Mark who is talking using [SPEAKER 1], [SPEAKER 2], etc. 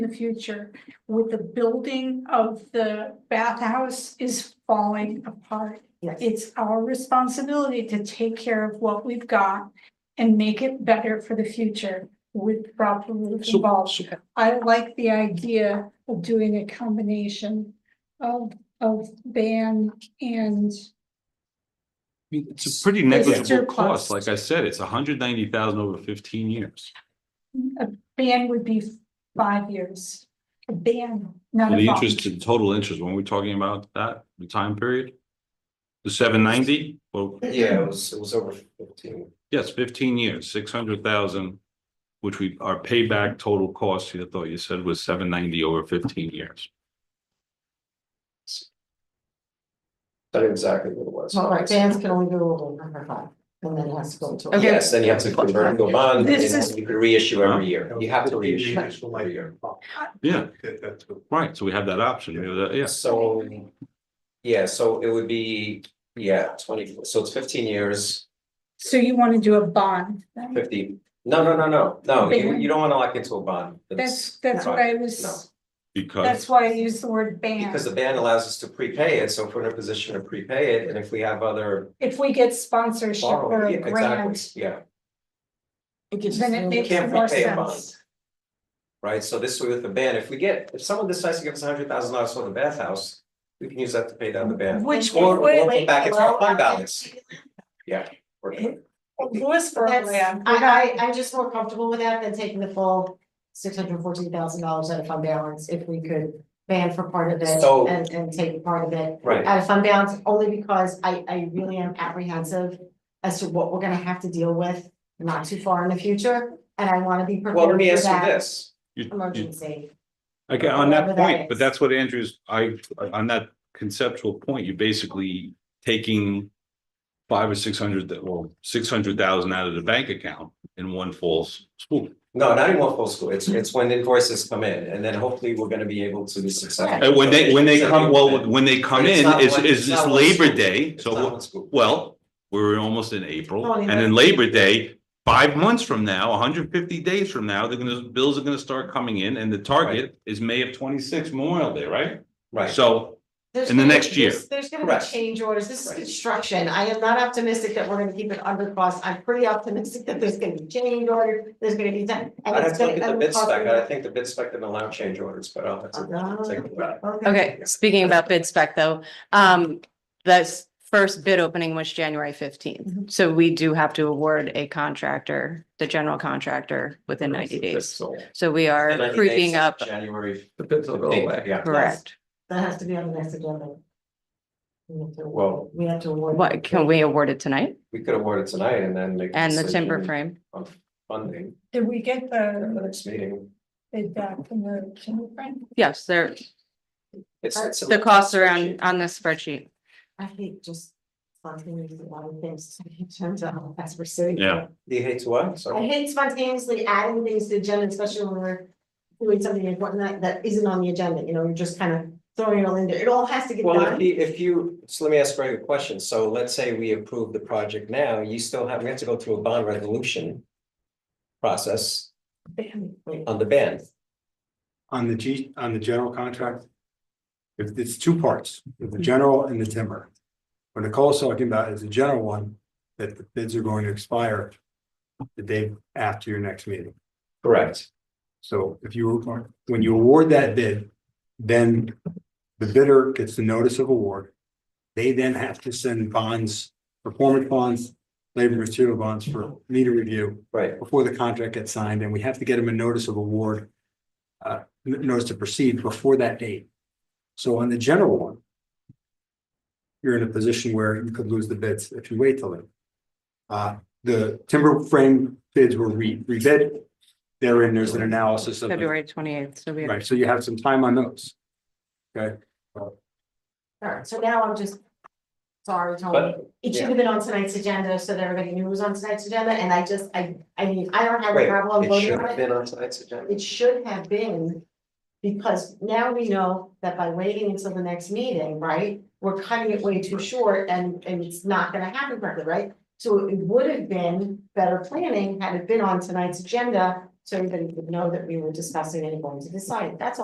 [SPEAKER 1] future with the building of the bathhouse is falling apart.
[SPEAKER 2] Yes,
[SPEAKER 1] It's our responsibility to take care of what we've got and make it better for the future with proper roof
[SPEAKER 3] So,
[SPEAKER 1] involved.
[SPEAKER 3] so
[SPEAKER 1] I like the idea of doing a combination of, of ban and
[SPEAKER 3] I mean, it's
[SPEAKER 1] It's
[SPEAKER 3] a pretty
[SPEAKER 1] your
[SPEAKER 3] negligible
[SPEAKER 1] cost.
[SPEAKER 3] cost, like I said, it's hundred ninety thousand over fifteen years.
[SPEAKER 1] a ban would be five years. A ban, not
[SPEAKER 3] And
[SPEAKER 1] a
[SPEAKER 3] the
[SPEAKER 1] bond.
[SPEAKER 3] interest, the total interest, when we're talking about that, the time period? The seven ninety, well,
[SPEAKER 4] Yeah, it was, it was over fifteen.
[SPEAKER 3] yes, fifteen years, six hundred thousand. Which we, our payback total cost, you thought you said was seven ninety over fifteen years.
[SPEAKER 4] That's exactly what it was.
[SPEAKER 2] well, right, bands can only go over number five, and then it has to go to.
[SPEAKER 5] Okay.
[SPEAKER 4] Yes, then you have to convert and go bond,
[SPEAKER 1] This is-
[SPEAKER 4] and you can reissue every year. You have to reissue every year.
[SPEAKER 3] Yeah,
[SPEAKER 6] That's what.
[SPEAKER 3] right, so we have that option, we have that, yes,
[SPEAKER 4] So, yeah, so it would be, yeah, twenty, so it's fifteen years,
[SPEAKER 1] So you want to do a bond? then?
[SPEAKER 4] fifty. No, no, no, no, no, you, you don't wanna lock into a bond.
[SPEAKER 1] That's, that's what I was, that's
[SPEAKER 3] because,
[SPEAKER 1] why I used the word
[SPEAKER 4] Because the
[SPEAKER 1] ban.
[SPEAKER 4] ban allows us to prepay it, so if we're in a position to prepay it, and if we have other.
[SPEAKER 1] If we get sponsorship or
[SPEAKER 4] borrowing-
[SPEAKER 1] a
[SPEAKER 4] yeah, exactly,
[SPEAKER 1] grant,
[SPEAKER 4] Yeah,
[SPEAKER 2] It gives us
[SPEAKER 1] then
[SPEAKER 2] a
[SPEAKER 1] it
[SPEAKER 2] little-
[SPEAKER 1] makes
[SPEAKER 4] can't
[SPEAKER 1] more
[SPEAKER 4] repay a bond.
[SPEAKER 1] sense.
[SPEAKER 4] right, so this way with the ban, if we get, if someone decides to give us a hundred thousand dollars for the bathhouse, we can use that to pay down the ban.
[SPEAKER 1] Which
[SPEAKER 4] Or we'll
[SPEAKER 1] would,
[SPEAKER 4] put back its
[SPEAKER 2] well,
[SPEAKER 4] fund balance. Yeah. we're good.
[SPEAKER 1] was for
[SPEAKER 2] That's-
[SPEAKER 1] land.
[SPEAKER 2] I, I, I'm just more comfortable with that than taking the full six hundred fourteen thousand dollars out of fund balance, if we could ban for part of it
[SPEAKER 4] So-
[SPEAKER 2] and, and take part of it.
[SPEAKER 4] Right,
[SPEAKER 2] Out of fund balance, only because I, I really am apprehensive as to what we're gonna have to deal with not too far in the future, and I wanna be
[SPEAKER 4] well, let
[SPEAKER 2] prepared
[SPEAKER 4] me
[SPEAKER 2] for
[SPEAKER 4] ask you
[SPEAKER 2] that
[SPEAKER 4] this,
[SPEAKER 3] you, you
[SPEAKER 2] emergency.
[SPEAKER 3] Again, on that
[SPEAKER 2] Whatever that
[SPEAKER 3] point, but
[SPEAKER 2] is.
[SPEAKER 3] that's what Andrew's, I, on that conceptual point, you're basically taking. Five or six hundred, that- well, six hundred thousand out of the bank account in one false swoop.
[SPEAKER 4] no, not in one full school, it's, it's when invoices come in, and then hopefully we're gonna be able to be successful.
[SPEAKER 3] And Uh, when they, when they come, well, when they come
[SPEAKER 4] But it's
[SPEAKER 3] in,
[SPEAKER 4] not
[SPEAKER 3] is,
[SPEAKER 4] one-
[SPEAKER 3] is
[SPEAKER 4] it's
[SPEAKER 3] this
[SPEAKER 4] not one
[SPEAKER 3] Labor
[SPEAKER 4] school.
[SPEAKER 3] Day,
[SPEAKER 4] It's not
[SPEAKER 3] so,
[SPEAKER 4] one school.
[SPEAKER 3] well, we're almost in April,
[SPEAKER 2] Oh, yeah.
[SPEAKER 3] and then Labor Day. Five months from now, hundred fifty days from now, they're gonna, bills are gonna start coming in, and the target is May of twenty-six Memorial Day, right?
[SPEAKER 4] Right,
[SPEAKER 3] So,
[SPEAKER 2] There's
[SPEAKER 3] in the
[SPEAKER 2] gonna-
[SPEAKER 3] next year.
[SPEAKER 2] there's- There's gonna be
[SPEAKER 4] Correct.
[SPEAKER 2] change orders, this is
[SPEAKER 4] Right.
[SPEAKER 2] construction, I am not optimistic that we're gonna keep it under cost, I'm pretty optimistic that there's gonna be change orders, there's gonna be time. and
[SPEAKER 4] I'd have
[SPEAKER 2] it's
[SPEAKER 4] to
[SPEAKER 2] gonna-
[SPEAKER 4] look at
[SPEAKER 2] and
[SPEAKER 4] the
[SPEAKER 2] the
[SPEAKER 4] bid
[SPEAKER 2] cost
[SPEAKER 4] spec,
[SPEAKER 2] of
[SPEAKER 4] I
[SPEAKER 2] it-
[SPEAKER 4] think the bid spec didn't allow change orders, but I'll have
[SPEAKER 2] Ah.
[SPEAKER 4] to take a look.
[SPEAKER 5] Okay, speaking about bid spec though, um, this first bid opening was January fifteenth. So we do have to award a contractor, the general contractor, within ninety days.
[SPEAKER 4] So-
[SPEAKER 5] So we are
[SPEAKER 4] 90
[SPEAKER 5] creeping
[SPEAKER 4] days,
[SPEAKER 5] up,
[SPEAKER 4] January.
[SPEAKER 6] The bids will go
[SPEAKER 4] 15th,
[SPEAKER 6] away.
[SPEAKER 4] Yeah,
[SPEAKER 5] correct.
[SPEAKER 2] That has to be on the next agenda. We have to-
[SPEAKER 4] Well-
[SPEAKER 2] We have to award.
[SPEAKER 5] What, can we award it tonight?
[SPEAKER 4] we could award it tonight and then make. a
[SPEAKER 5] And the
[SPEAKER 4] decision
[SPEAKER 5] timber frame?
[SPEAKER 4] On funding
[SPEAKER 1] Did we get
[SPEAKER 4] at the
[SPEAKER 1] the,
[SPEAKER 4] next meeting.
[SPEAKER 1] bid back from the Timberfront?
[SPEAKER 5] Yes, there,
[SPEAKER 4] It's,
[SPEAKER 2] Uh,
[SPEAKER 4] it's.
[SPEAKER 5] the costs are on, on this spreadsheet.
[SPEAKER 2] I hate just spontaneously a lot of things, it turns out as we're sitting. here.
[SPEAKER 3] Yeah.
[SPEAKER 4] Do you hate to what?
[SPEAKER 2] I
[SPEAKER 4] Sorry.
[SPEAKER 2] hate spontaneously adding things to the agenda, especially when we're doing something important that, that isn't on the agenda, you know, you're just kind of throwing it all in there, it all has to get
[SPEAKER 4] Well, if
[SPEAKER 2] done.
[SPEAKER 4] you, if you, so let me ask Greg a question. So let's say we approve the project now, you still have, we have to go through a bond resolution. Process on the ban.
[SPEAKER 7] on the G, on the general contract. If it's two parts, the general and the timber. What Nicole's talking about is the general one, that the bids are going to expire. The day after your next meeting.
[SPEAKER 4] Correct.
[SPEAKER 7] So if you, when you award that bid, then the bidder gets the notice of award. They then have to send bonds, performance bonds, labor material bonds for me to review
[SPEAKER 4] Right,
[SPEAKER 7] before the contract gets signed, and we have to get them a notice of award. Uh, n- notice to proceed before that date. So on the general one. You're in a position where you could lose the bids if you wait till then. Uh, the timber frame bids were re- rebid. Therein, there's an analysis of. the-
[SPEAKER 5] February twenty-eighth, so we,
[SPEAKER 7] Right, so you have some time on those. Okay,
[SPEAKER 2] Alright, so now I'm just. Sorry, Tony,
[SPEAKER 4] but
[SPEAKER 2] it should have been on tonight's agenda, so that everybody knew it was on tonight's agenda, and I just, I, I mean, I don't have a
[SPEAKER 4] wait,
[SPEAKER 2] problem
[SPEAKER 4] it
[SPEAKER 2] voting
[SPEAKER 4] should
[SPEAKER 2] on
[SPEAKER 4] have
[SPEAKER 2] it,
[SPEAKER 4] been on tonight's agenda.
[SPEAKER 2] it should have been. Because now we know that by waiting until the next meeting, right, we're cutting it way too short and, and it's not gonna happen correctly, right? So it would have been better planning had it been on tonight's agenda So everybody would know that we were discussing and going to decide, that's all.